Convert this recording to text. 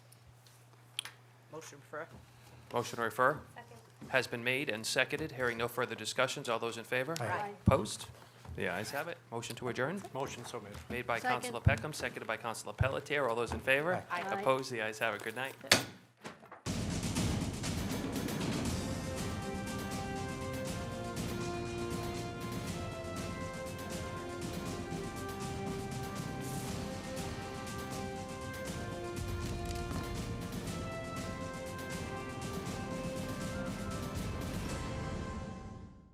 Motion refer. Motion to refer has been made and seconded. Hearing no further discussions. All those in favor? Opposed? The ayes have it. Motion to adjourn, Motion so made. made by Second. Councilor Peckham, seconded by Councilor Pelletier. All those in favor? Aye. Aye. Opposed? The ayes have it. Good night.